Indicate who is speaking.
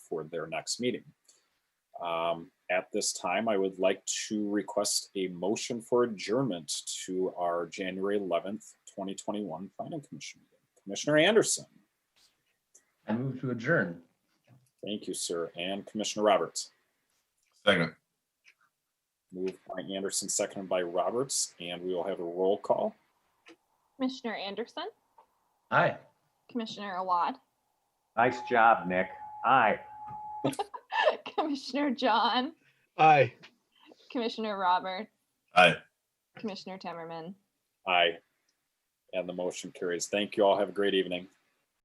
Speaker 1: for their next meeting. Um, At this time, I would like to request a motion for adjournment to our January eleventh, twenty twenty-one planning commission. meeting. Commissioner Anderson,
Speaker 2: I move to adjourn.
Speaker 1: thank you, sir, and Commissioner Roberts.
Speaker 3: Second,
Speaker 1: Moved by Anderson, seconded by Roberts, and we will have a roll call.
Speaker 4: Commissioner Anderson,
Speaker 2: Aye.
Speaker 4: Commissioner Awad,
Speaker 5: Nice job, Nick. Aye.
Speaker 4: Commissioner John,
Speaker 6: Aye.
Speaker 4: Commissioner Robert,
Speaker 3: aye.
Speaker 4: Commissioner Timmerman.
Speaker 1: Aye. And the motion carries. Thank you all. Have a great evening.